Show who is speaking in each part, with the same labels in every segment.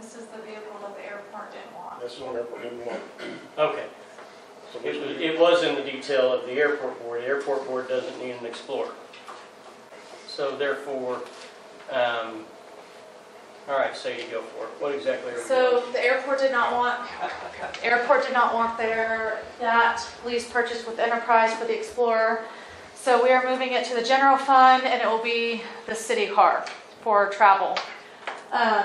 Speaker 1: is the vehicle that the airport didn't want.
Speaker 2: That's the one that we didn't want.
Speaker 3: Okay,
Speaker 2: So
Speaker 3: it
Speaker 2: we
Speaker 3: was, it was in the detail of the airport board, the airport board doesn't need an Explorer. So therefore, um, all right, so you go for it, what exactly are we
Speaker 1: So
Speaker 3: doing?
Speaker 1: the airport did not want, airport did not want their, that lease purchase with Enterprise for the Explorer. So we are moving it to the general fund and it will be the city car for travel. Um,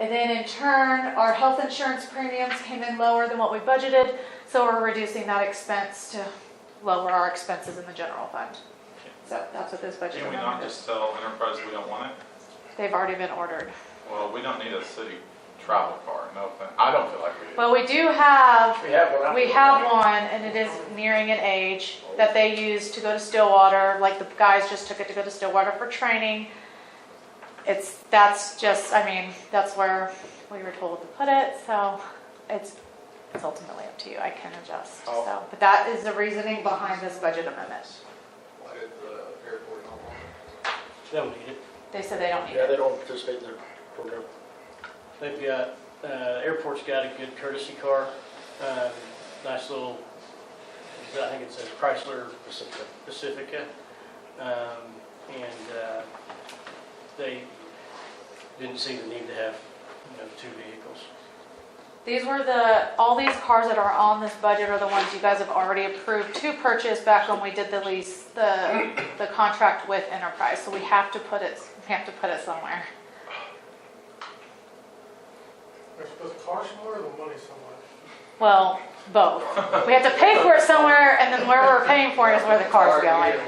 Speaker 1: And then in turn, our health insurance premiums came in lower than what we budgeted, so we're reducing that expense to lower our expenses in the general fund. So that's what this budget
Speaker 4: Can we not
Speaker 1: amendment is.
Speaker 4: just tell Enterprise we don't want it?
Speaker 1: They've already been ordered.
Speaker 4: Well, we don't need a city travel car, no offense. I don't feel like we do.
Speaker 1: Well, we do have
Speaker 2: We have one.
Speaker 1: We have one, and it is nearing an age that they use to go to Stillwater, like the guys just took it to go to Stillwater for training. It's, that's just, I mean, that's where we were told to put it, so it's, it's ultimately up to you, I can adjust, so. But that is the reasoning behind this budget amendment.
Speaker 5: Why did the airport not want it?
Speaker 3: Don't need it,
Speaker 1: They said they don't need
Speaker 2: Yeah,
Speaker 1: it.
Speaker 2: they don't participate in their program.
Speaker 3: they've got, uh, airport's got a good courtesy car, um, nice little, I think it says Chrysler
Speaker 2: Pacifica.
Speaker 3: Pacifica. um, And uh, they didn't see the need to have, you know, two vehicles.
Speaker 1: These were the, all these cars that are on this budget are the ones you guys have already approved to purchase back when we did the lease, the, the contract with Enterprise. So we have to put it, we have to put it somewhere.
Speaker 5: Was the car somewhere or the money somewhere?
Speaker 1: Well, both. We have to pay for it somewhere and then where we're paying for it is where the car's going.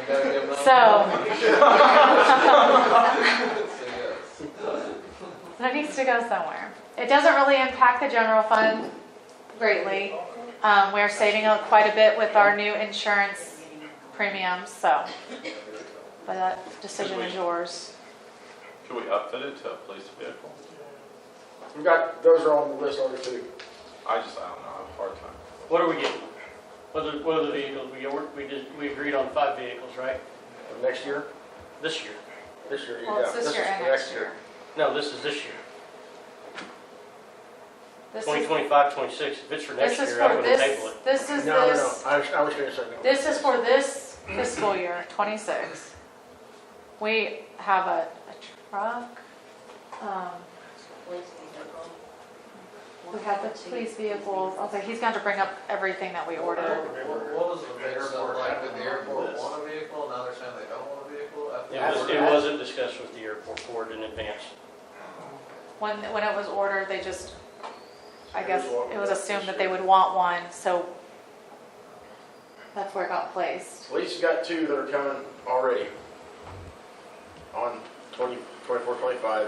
Speaker 1: So it needs to go somewhere. It doesn't really impact the general fund greatly. Um, we're saving up quite a bit with our new insurance premiums, so. But that decision is yours.
Speaker 4: Could we outfit it to a police vehicle?
Speaker 2: We got, those are on the list already too.
Speaker 4: I just, I don't know, I have a hard time.
Speaker 3: What are we getting? What are, what are the vehicles? We, or- we did, we agreed on five vehicles, right?
Speaker 2: Next year,
Speaker 3: This year?
Speaker 2: this year, yeah.
Speaker 1: Well, it's this year
Speaker 2: is
Speaker 1: and
Speaker 2: for
Speaker 1: next year.
Speaker 3: No, this is this year.
Speaker 1: This is,
Speaker 3: 2025, 26. If it's for
Speaker 1: this
Speaker 3: next
Speaker 1: is
Speaker 3: year, I'm
Speaker 1: for
Speaker 3: going to table
Speaker 1: this,
Speaker 3: it.
Speaker 1: this is
Speaker 2: No, no, no,
Speaker 1: this,
Speaker 2: I was, I was gonna say no.
Speaker 1: this is for this fiscal year, twenty-six. We have a, a truck, um, we have the police vehicles, also, he's going to bring up everything that we ordered.
Speaker 5: What was the
Speaker 6: airport
Speaker 5: Like,
Speaker 6: having
Speaker 5: did the
Speaker 6: on
Speaker 5: airport
Speaker 6: this?
Speaker 5: want a vehicle, now they're saying they don't want a vehicle? I
Speaker 3: It
Speaker 5: think-
Speaker 3: was- It wasn't discussed with the airport board in advance.
Speaker 1: When, when it was ordered, they just, I guess, it was assumed that they would want one, so that's where it got placed.
Speaker 2: Police got two that are coming already on 20, 24, 25.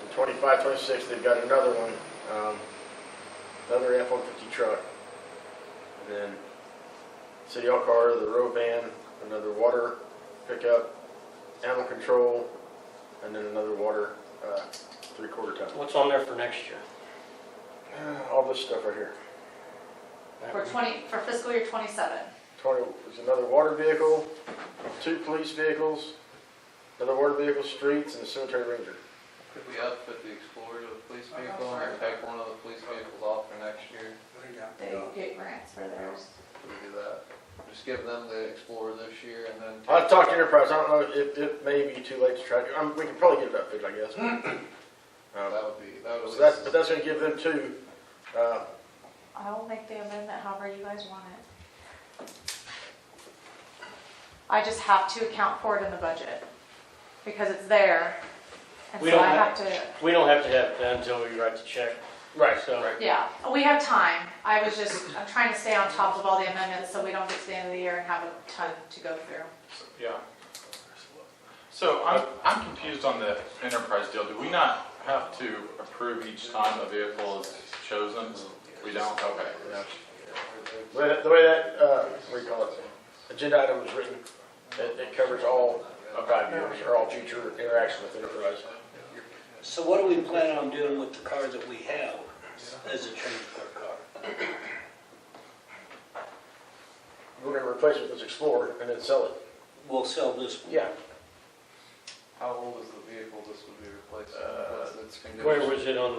Speaker 2: And 25, 26, they've got another one, um, another F-150 truck. And then city hall car, the road van, another water pickup, animal control, and then another water, uh, three-quarter ton.
Speaker 3: What's on there for next year?
Speaker 2: All this stuff right here.
Speaker 1: For twenty, for fiscal year twenty-seven.
Speaker 2: 20, there's another water vehicle, two police vehicles, another water vehicle, streets, and a cemetery ranger.
Speaker 6: Could we outfit the Explorer to a police vehicle and take one of the police vehicles off for next year?
Speaker 1: They get grants for theirs.
Speaker 6: Could we do that? Just give them the Explorer this year and then.
Speaker 2: I've talked to Enterprise, I don't know if it may be too late to try, to- um, we can probably get it updated, I guess. Um,
Speaker 6: That would be, that would.
Speaker 2: So that's, but that's gonna give them two, uh,
Speaker 1: I will make the amendment however you guys want it. I just have to account for it in the budget, because it's there, and
Speaker 3: We
Speaker 1: so
Speaker 3: don't
Speaker 1: I have
Speaker 3: have-
Speaker 1: to,
Speaker 3: We don't have to have it done until we write the check.
Speaker 2: right,
Speaker 3: So-
Speaker 2: so,
Speaker 1: yeah, we have time. I was just, I'm trying to stay on top of all the amendments, so we don't get to the end of the year and have a ton to go through.
Speaker 4: Yeah. So I'm, I'm confused on the Enterprise deal. Do we not have to approve each time a vehicle is chosen? We don't, okay.
Speaker 2: the way that- the way that, uh, what do you call it, agenda item is written, it, it covers all five years, or all future interactions with Enterprise.
Speaker 7: So what do we plan on doing with the car that we have as a transfer car?
Speaker 2: We're gonna replace it with this Explorer and then sell it.
Speaker 7: We'll sell this one.
Speaker 2: Yeah,
Speaker 6: How old is the vehicle this would be replacing?
Speaker 2: Uh,
Speaker 6: What's its
Speaker 3: Where
Speaker 6: condition?
Speaker 3: was it on there?